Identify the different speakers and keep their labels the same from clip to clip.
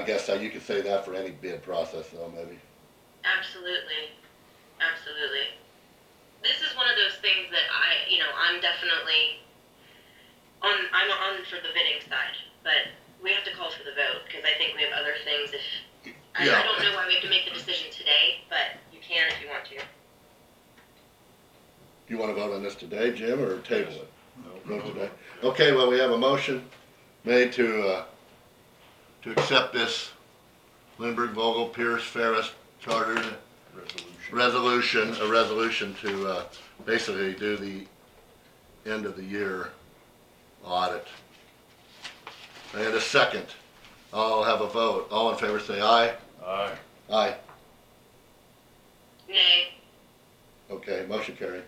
Speaker 1: guess that you could say that for any bid process though, maybe.
Speaker 2: Absolutely. Absolutely. This is one of those things that I, you know, I'm definitely on I'm on for the bidding side, but we have to call for the vote because I think we have other things if I, I
Speaker 3: Yeah.
Speaker 2: don't know why we have to make the decision today, but you can if you want to.
Speaker 1: You wanna vote on this today, Jim, or table it?
Speaker 3: No,
Speaker 1: Vote today. Okay, well, we have a motion made to, uh, to accept this Lindbergh, Vogel, Pierce, Ferris Charter
Speaker 3: Resolution.
Speaker 1: resolution, a resolution to, uh, basically do the end of the year audit. And a second. I'll have a vote. All in favor, say aye.
Speaker 3: Aye.
Speaker 1: Aye.
Speaker 2: Nay.
Speaker 1: Okay, motion carried.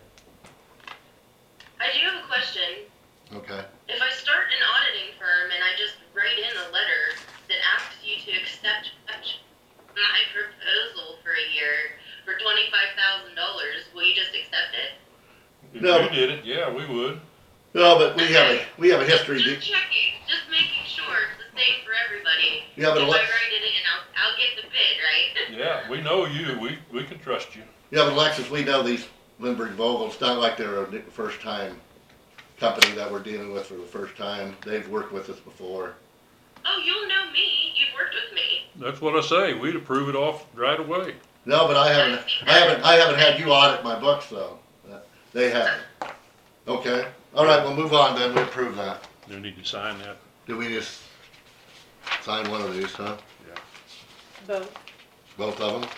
Speaker 2: I do have a question.
Speaker 1: Okay.
Speaker 2: If I start an auditing firm and I just write in a letter that asks you to accept my proposal for a year for $25,000, will you just accept it?
Speaker 3: If
Speaker 1: No.
Speaker 3: you did it, yeah, we would.
Speaker 1: No, but we have a, we have a history.
Speaker 2: Just checking, just making sure it's the same for everybody.
Speaker 1: Yeah, but
Speaker 2: if
Speaker 1: a lot-
Speaker 2: I write it in, I'll, I'll get the bid, right?
Speaker 3: Yeah, we know you. We, we can trust you.
Speaker 1: Yeah, but Alexis, we know these Lindbergh Vogels, it's not like they're a new- first time company that we're dealing with for the first time. They've worked with us before.
Speaker 2: oh, you'll know me. You've worked with me.
Speaker 3: That's what I say. We'd approve it off right away.
Speaker 1: No, but I haven't, I haven't, I haven't had you audit my books though. Uh, They haven't. Okay, all right, we'll move on then, we approve that.
Speaker 3: You need to sign that.
Speaker 1: Do we just sign one of these, huh?
Speaker 4: Both.
Speaker 1: Both of them?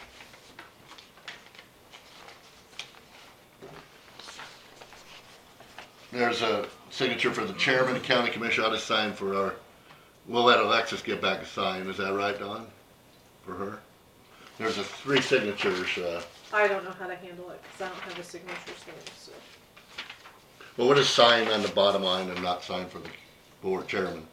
Speaker 1: There's a signature for the chairman, the county commission, I'll just sign for our, we'll let Alexis get back a sign, is that right, Don? For her? There's a three signatures, uh,
Speaker 4: I don't know how to handle it because I don't have a signature stamp. So
Speaker 1: well, we'll just sign on the bottom line and not sign for the board chairman.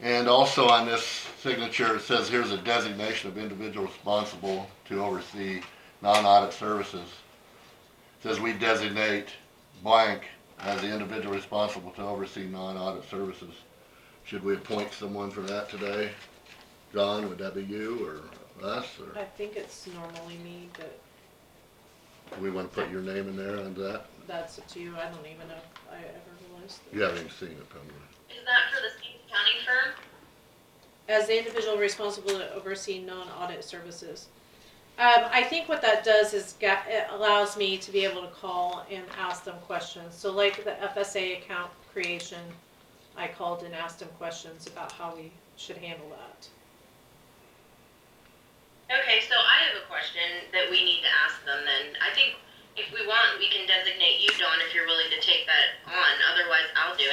Speaker 1: And also on this signature, it says here's a designation of individual responsible to oversee non-audit services. It Says we designate blank as the individual responsible to oversee non-audit services. Should we appoint someone for that today? John, would that be you or us,
Speaker 4: I
Speaker 1: or
Speaker 4: think it's normally me, but
Speaker 1: we wanna put your name in there on that?
Speaker 4: that's up to you. I don't even know if I ever realized. That.
Speaker 1: You haven't even seen it probably.
Speaker 2: Is that for the same accounting firm?
Speaker 4: As the individual responsible to oversee non-audit services, um, I think what that does is ga- it allows me to be able to call and ask them questions. So like the FSA account creation, I called and asked them questions about how we should handle that.
Speaker 2: Okay, so I have a question that we need to ask them then. I think if we want, we can designate you, Dawn, if you're willing to take that on. Otherwise, I'll do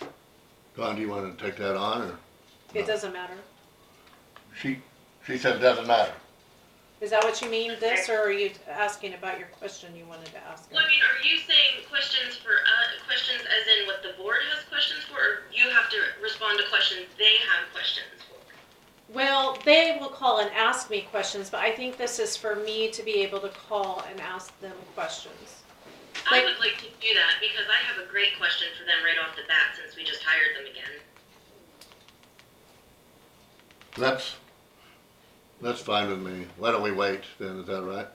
Speaker 2: it.
Speaker 1: Don, do you wanna take that on, or?
Speaker 4: It doesn't matter.
Speaker 1: She, she said it doesn't matter.
Speaker 4: Is that what you mean, this, or are you asking about your question you wanted to ask?
Speaker 2: Well, I mean, are you saying questions for, uh, questions as in what the board has questions for, or you have to respond to questions they have questions for?
Speaker 4: Well, they will call and ask me questions, but I think this is for me to be able to call and ask them questions.
Speaker 2: I
Speaker 4: Like-
Speaker 2: would like to do that because I have a great question for them right off the bat since we just hired them again.
Speaker 1: That's, that's fine with me. Why don't we wait then, is that right?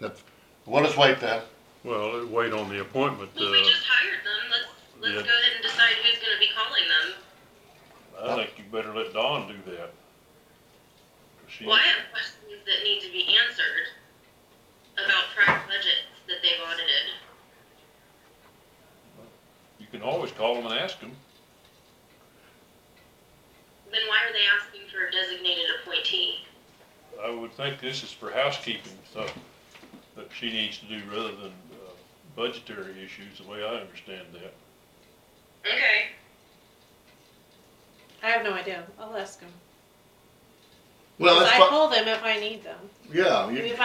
Speaker 1: That's, we'll just wait then.
Speaker 3: uh,
Speaker 5: Well, wait on the appointment,
Speaker 2: Well, we
Speaker 5: uh,
Speaker 2: just hired them. Let's let's
Speaker 5: yeah.
Speaker 2: go ahead and decide who's going to be calling them.
Speaker 3: I think you better let Dawn do that. She-
Speaker 2: Well, I have questions that need to be answered about prior budgets that they've audited.
Speaker 3: You can always call them and ask them.
Speaker 2: Then why are they asking for a designated appointee?
Speaker 3: I would think this is for housekeeping stuff that she needs to do rather than uh, budgetary issues, the way I understand that.
Speaker 2: Okay.
Speaker 4: I have no idea. I'll ask them.
Speaker 1: Well,
Speaker 4: Because
Speaker 1: that's
Speaker 4: I
Speaker 1: fine,
Speaker 4: call them if I need them.
Speaker 1: yeah.
Speaker 4: I
Speaker 1: you-
Speaker 4: mean, if